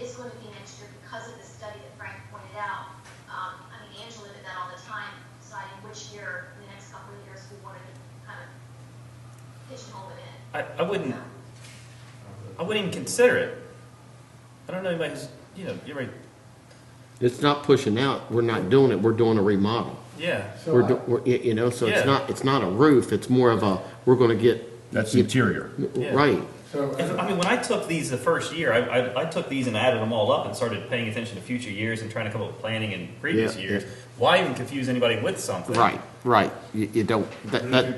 is going to be next year because of the study that Frank pointed out. Um, I mean, Angela did that all the time, deciding which year, in the next couple of years, we wanted to kind of pigeonhole it in. I, I wouldn't, I wouldn't even consider it. I don't know anybody who's, you know, you're right, It's not pushing out, we're not doing it, we're doing a remodel. yeah. So We're, do- I- we're- y- you know, so Yeah. it's not, it's not a roof, it's more of a, we're gonna get. That's you- interior. Yeah. Right, so uh, If- I mean, when I took these the first year, I, I, I took these and added them all up and started paying attention to future years and trying to come up with planning in previous Yeah, years. yeah. Why even confuse anybody with something? right, right, you, you don't, that, that,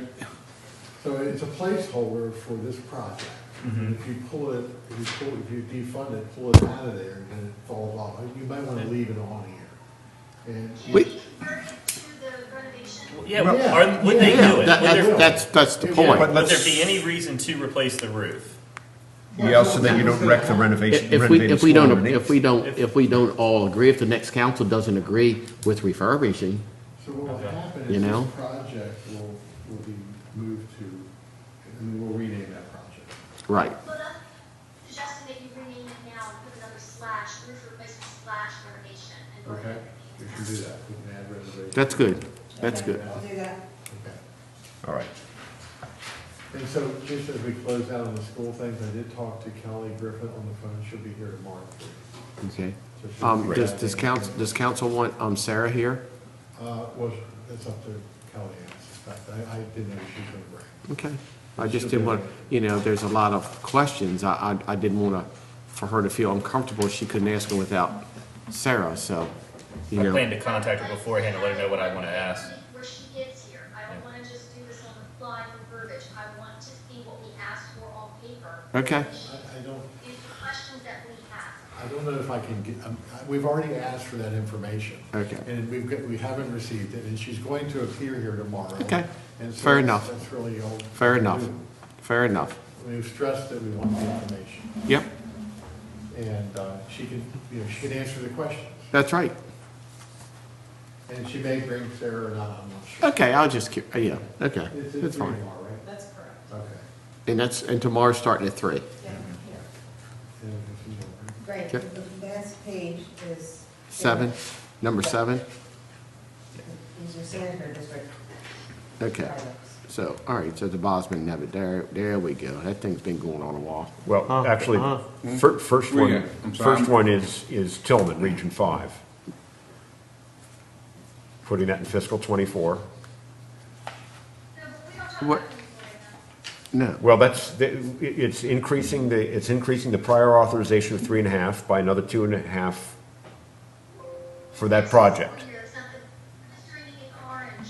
So it's a placeholder for this project. Mm-hmm. If you pull it, if you pull, if you defund it, pull it out of there, then it falls off. Uh, You might want to leave it on here. And Can We- we convert it to the renovation? Well, Yeah, Well, are, would yeah, they yeah, do it? that- Would that's, there- that's, that's the Yeah, point. but Would let's- there be any reason to replace the roof? Yeah, so that you don't wreck the renovation, If we, renovated if we school don't, if underneath. we don't, if we don't all agree, if the next council doesn't agree with refurbishing, So what will happen You is know? this project will, will be moved to, and we'll rename that project. right, Well, that's suggesting that you rename it now and put another slash, roof replacement slash renovation. and go ahead and You rename can that. do that, we can add renovation. that's good, that's Okay, good. I'll do that. Okay. All right. And so just as we close out on the school things, I did talk to Kelly Griffin on the phone, she'll be here tomorrow. Okay. So she'll Um, be does, back does in- council, does council want, um, Sarah here? Uh, well, it's up to Kelly, I suspect, I, I didn't know she was gonna bring. Okay. I just didn't want, you know, there's a lot of questions. I, I, I didn't want to, for her to feel uncomfortable. She couldn't ask them without Sarah, so, you I plan know. to contact her beforehand and let her know what I want to ask. Where she gets here, I don't wanna just do this on the fly for verbiage, I want to see what we asked for on paper. Okay. I, I don't, These are questions that we have. I don't know if I can get, um, I- we've already asked for that information. Okay. And we've, got- we haven't received it, and she's going to appear here tomorrow. Okay. And so Fair that's- enough. That's really all. Fair enough. Fair enough. We've stressed that we want the information, Yep, and, uh, she can, you know, she can answer the questions. that's right. And she may bring Sarah or not, I'm not sure. Okay, I'll just, keep- yeah, okay, It's, it's that's who you fine. are, right? That's correct. Okay. And that's, and tomorrow's starting at three. Yeah, here. And if you don't- Great. Mm-hmm. Okay. The last page is. Seven, number seven? Is your sanitary district. Okay. items. So, all right, so the Bosman Nebbit, there, there we go. That thing's been going on a while. Huh, Well, actually, huh. fir- first Where you one, at? I'm sorry, first I'm- one is, is Tillman, Region Five. Putting that in fiscal twenty-four. No, but we don't talk What- about inventory now. No, Well, that's, the- it- it's increasing the, it's increasing the prior authorization of three and a half by another two and a half for that project. It's not the- it's turning it orange.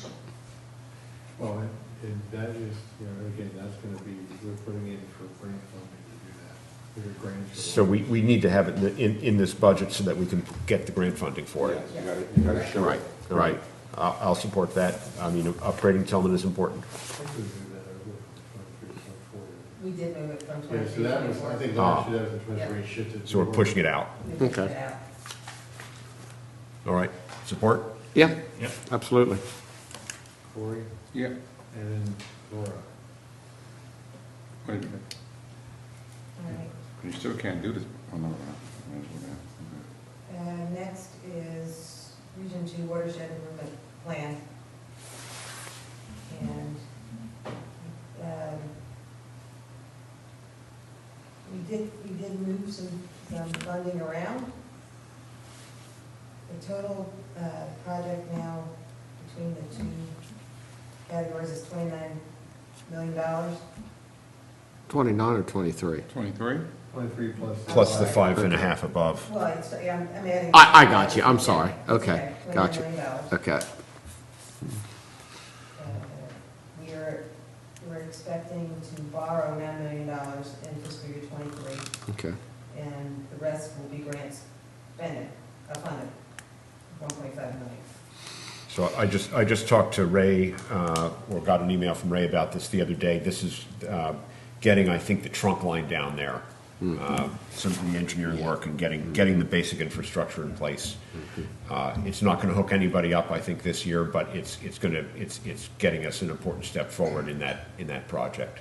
Well, and, and that is, you know, again, that's gonna be, we're putting in for grant funding to do that. We're grants. for- So we, we need to have it in- in, in this budget so that we can get the grant funding for it. Yes, you gotta, you gotta show right, it. right. I'll, I'll support that. I mean, upgrading Tillman is important. I think we do that uh, over twenty-three, twenty-four. We did move it from Yeah, twenty-three. so that was, I think last year that was the twenty-three shifted. Ah. So we're pushing it out. Okay. All right, support? Yeah, Yep. absolutely. Corey Yeah, and then Laura. wait a minute, you still can't do this. Oh, no, no, no, might as well not. And next is Region Two Watershed Improvement Plan. And, um, we did, we did move some, some funding around. The total, uh, project now between the two categories is twenty-nine million dollars. Twenty-nine or twenty-three? Twenty-three? Twenty-three plus. Plus the five and a half above. Well, it's, yeah, I'm- I'm adding. I, I got you, I'm sorry. Okay, $29 got you. million dollars. Okay, Uh, We are, we're expecting to borrow nine million dollars in fiscal year twenty-three, okay. and the rest will be grants spending, uh, funded, one point five million. So I just, I just talked to Ray, uh, or got an email from Ray about this the other day. This is uh, getting, I think, the trunk line down there. Uh, Some of the engineering work and getting, getting the basic infrastructure in place. Uh, It's not going to hook anybody up, I think, this year, but it's, it's going to, it's, it's getting us an important step forward in that, in that project.